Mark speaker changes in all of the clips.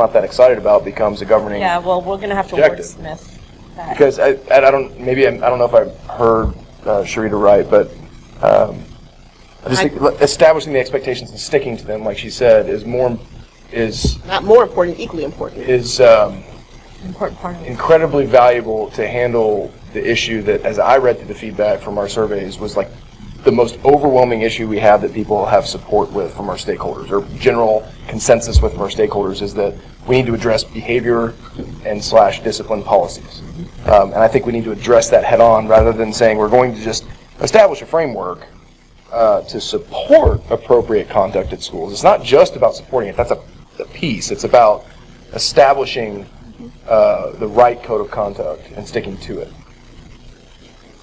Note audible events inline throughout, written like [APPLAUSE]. Speaker 1: not that excited about becomes a governing.
Speaker 2: Yeah, well, we're gonna have to
Speaker 1: Rejected.
Speaker 2: wordsmith that.
Speaker 1: Because I, and I don't, maybe, I'm- I don't know if I heard uh, Sharita right, but um, I just
Speaker 3: I-
Speaker 1: think le- establishing the expectations and sticking to them, like she said, is more, is,
Speaker 3: Not more important, equally important.
Speaker 1: is um,
Speaker 2: Important part of it.
Speaker 1: incredibly valuable to handle the issue that, as I read through the feedback from our surveys, was like the most overwhelming issue we have that people have support with from our stakeholders, or general consensus with from our stakeholders, is that we need to address behavior and slash discipline policies. Um, and I think we need to address that head on rather than saying we're going to just establish a framework uh, to support appropriate conduct at schools. It's not just about supporting it. That's a, a piece. It's about establishing uh, the right code of conduct and sticking to it.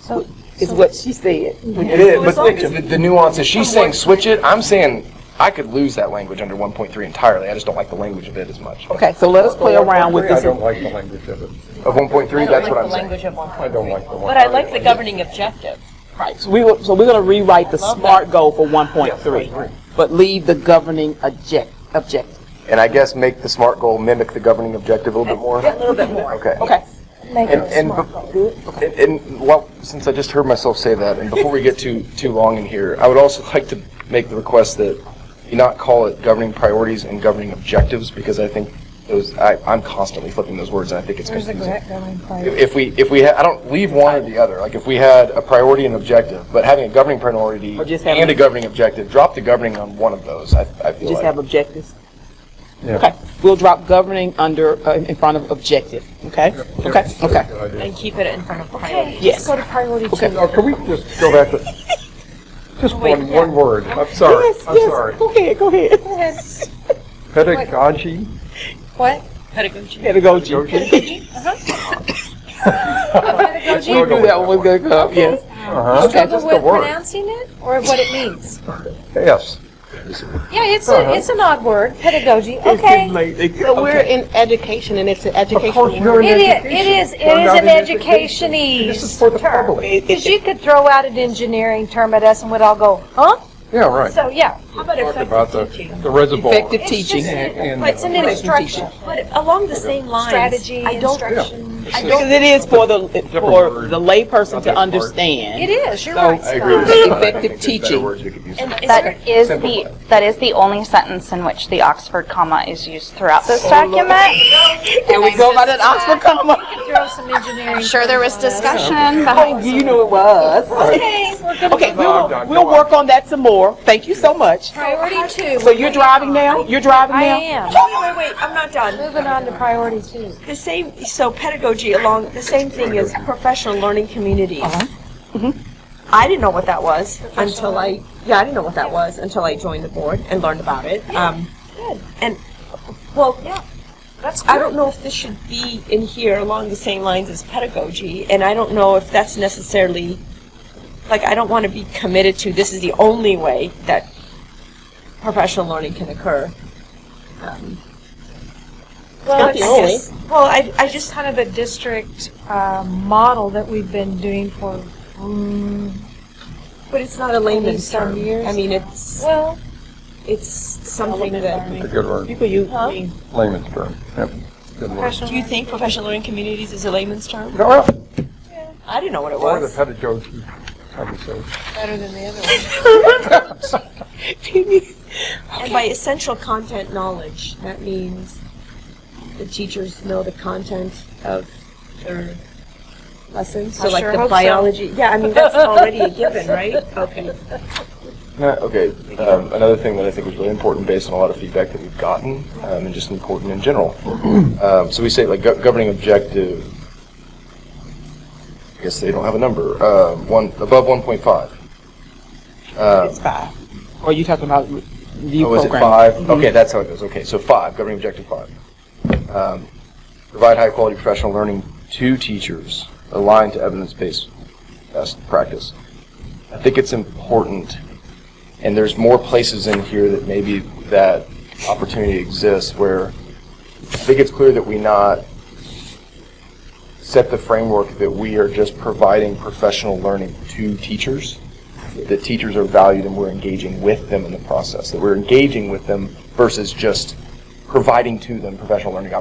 Speaker 2: So,
Speaker 3: Is what she said.
Speaker 1: It is,
Speaker 2: as long
Speaker 1: but
Speaker 2: as-
Speaker 1: the, the nuance is she's saying
Speaker 2: Somewhat.
Speaker 1: switch it. I'm saying I could lose that language under 1.3 entirely. I just don't like the language of it as much.
Speaker 3: Okay, so let us play around with
Speaker 4: I
Speaker 3: this.
Speaker 4: don't like the language of it.
Speaker 1: Of 1.3,
Speaker 2: I
Speaker 1: that's what I'm
Speaker 2: don't like the
Speaker 1: saying.
Speaker 2: language of one
Speaker 4: I
Speaker 2: point.
Speaker 4: don't like the one.
Speaker 2: But I like the governing objective.
Speaker 3: Right, so we will, so we're gonna rewrite the
Speaker 2: Love
Speaker 3: SMART goal for one point three, but leave the governing object, objective.
Speaker 1: And I guess make the SMART goal mimic the governing objective a little bit more.
Speaker 2: Eh, A little bit more.
Speaker 1: Okay.
Speaker 3: Okay,
Speaker 1: And, and, bef- and- and, well, since I just heard myself say that, and before we get too, too long in here, I would also like to make the request that you not call it governing priorities and governing objectives, because I think those, I, I'm constantly flipping those words, and I think it's confusing. If we, if we, ha- I don't, leave one or the other, like, if we had a priority and objective, but having a governing priority
Speaker 3: Or just having-
Speaker 1: and a governing objective, drop the governing on one of those, I, I feel
Speaker 3: just
Speaker 1: like.
Speaker 3: have objectives.
Speaker 4: Yeah.
Speaker 3: Okay, we'll drop governing under, uh, in front of objective, okay? Okay, okay,
Speaker 2: And keep it in front of priority.
Speaker 3: yes.
Speaker 4: Okay, now, can we just go back to, just one, one word, I'm sorry,
Speaker 3: Yes,
Speaker 4: I'm
Speaker 3: yes.
Speaker 4: sorry.
Speaker 3: Go ahead, go ahead.
Speaker 4: Pedagogy,
Speaker 2: What? Pedagogy.
Speaker 3: Pedagogy.
Speaker 4: Uh-huh.
Speaker 3: We
Speaker 4: We'll go
Speaker 3: knew
Speaker 4: with
Speaker 3: that one was gonna come, yes.
Speaker 4: uh-huh,
Speaker 3: Okay,
Speaker 5: struggle
Speaker 4: just the
Speaker 5: with
Speaker 4: word,
Speaker 5: pronouncing it or what it means.
Speaker 4: yes.
Speaker 5: Yeah, it's a, it's an odd word, pedagogy, okay.
Speaker 3: So we're in education and it's an
Speaker 4: Of course,
Speaker 3: educational
Speaker 4: you're
Speaker 3: word.
Speaker 4: in
Speaker 5: It is,
Speaker 4: education.
Speaker 5: it is, it
Speaker 4: We're
Speaker 5: is
Speaker 4: not
Speaker 5: an
Speaker 4: in education. This is
Speaker 5: educationese.
Speaker 4: for the public,
Speaker 5: Because you could throw out an engineering term at us and we'd all go, huh?
Speaker 4: yeah, right.
Speaker 5: So, yeah.
Speaker 2: How about
Speaker 4: About the,
Speaker 2: effective teaching?
Speaker 4: the reservoir.
Speaker 3: Effective
Speaker 2: It's just-
Speaker 3: teaching.
Speaker 4: And-
Speaker 2: It's an instruction, but along the same lines.
Speaker 5: Strategy,
Speaker 2: I don't-
Speaker 5: instruction.
Speaker 2: I
Speaker 3: Because
Speaker 2: don't,
Speaker 3: it is for the, for
Speaker 4: word.
Speaker 3: the layperson
Speaker 4: Not
Speaker 3: to
Speaker 4: that hard.
Speaker 3: understand.
Speaker 5: It is, you're
Speaker 3: So-
Speaker 5: right,
Speaker 3: I
Speaker 5: Scott.
Speaker 3: Effective teaching.
Speaker 2: and is there,
Speaker 6: That is the, that is the only sentence in which the Oxford comma is used throughout this document.
Speaker 3: Can we go by that Oxford comma?
Speaker 5: Throw some engineering.
Speaker 6: I'm sure there was
Speaker 5: terms on us.
Speaker 6: discussion
Speaker 3: Oh,
Speaker 6: behind.
Speaker 3: [LAUGHS] you know it was.
Speaker 5: Okay, we're gonna.
Speaker 3: Okay,
Speaker 4: on,
Speaker 3: we'll,
Speaker 4: Doc,
Speaker 3: we'll
Speaker 4: go on.
Speaker 3: work on that some more. Thank you so much.
Speaker 5: Priority two.
Speaker 3: So you're driving now? You're driving
Speaker 5: I
Speaker 3: now?
Speaker 5: am.
Speaker 2: wait, wait, wait, I'm not done.
Speaker 5: Moving on to priority two.
Speaker 2: The same, so pedagogy along, the same thing as professional learning communities. Mm-hmm. I didn't know what that was until I, yeah, I didn't know what that was until I joined the board and learned about it. Um,
Speaker 5: Good.
Speaker 2: And, well,
Speaker 5: That's
Speaker 2: I don't know if this should be in here along the same lines as pedagogy, and I don't know if that's necessarily, like, I don't want to be committed to this is the only way that professional learning can occur.
Speaker 5: Well,
Speaker 3: not the only.
Speaker 5: it's, well, I, I just kind of a district uh, model that we've been doing for, mm,
Speaker 2: But it's not a layman's
Speaker 5: some
Speaker 2: term.
Speaker 5: years.
Speaker 2: I mean, it's,
Speaker 5: well,
Speaker 2: it's something
Speaker 5: Element
Speaker 2: that.
Speaker 5: learning.
Speaker 4: It's a good
Speaker 3: You
Speaker 4: word,
Speaker 3: could use,
Speaker 2: Huh?
Speaker 4: layman's term, yep, good word.
Speaker 5: professional.
Speaker 2: Do you think professional learning communities is a layman's term?
Speaker 4: No, well,
Speaker 2: I didn't know what it
Speaker 4: Or the
Speaker 2: was.
Speaker 4: pedagogy, I would say.
Speaker 2: And by essential content knowledge, that means the teachers know the content of their lessons. So
Speaker 5: I
Speaker 2: like
Speaker 5: sure
Speaker 2: the
Speaker 5: hope so.
Speaker 2: biology, yeah, I mean, that's already a given, right?
Speaker 5: [LAUGHS]
Speaker 2: Okay.
Speaker 1: No, Okay, um, another thing that I think was really important based on a lot of feedback that we've gotten, um, and just important in
Speaker 4: [CLEARS THROAT]
Speaker 1: general. Um, so we say like gov- governing objective, I guess they don't have a number, uh, one, above one point five.
Speaker 3: it's five. Or you talking about review
Speaker 1: Oh, is it
Speaker 3: program? Mm-hmm.
Speaker 1: five? Okay, that's how it goes, okay, so five, governing objective five. Um, Provide high-quality professional learning to teachers aligned to evidence-based best practice. I think it's important, and there's more places in here that maybe that opportunity exists where I think it's clear that we not set the framework that we are just providing professional learning to teachers, that teachers are valued and we're engaging with them in the process, that we're engaging with them versus just providing to them professional learning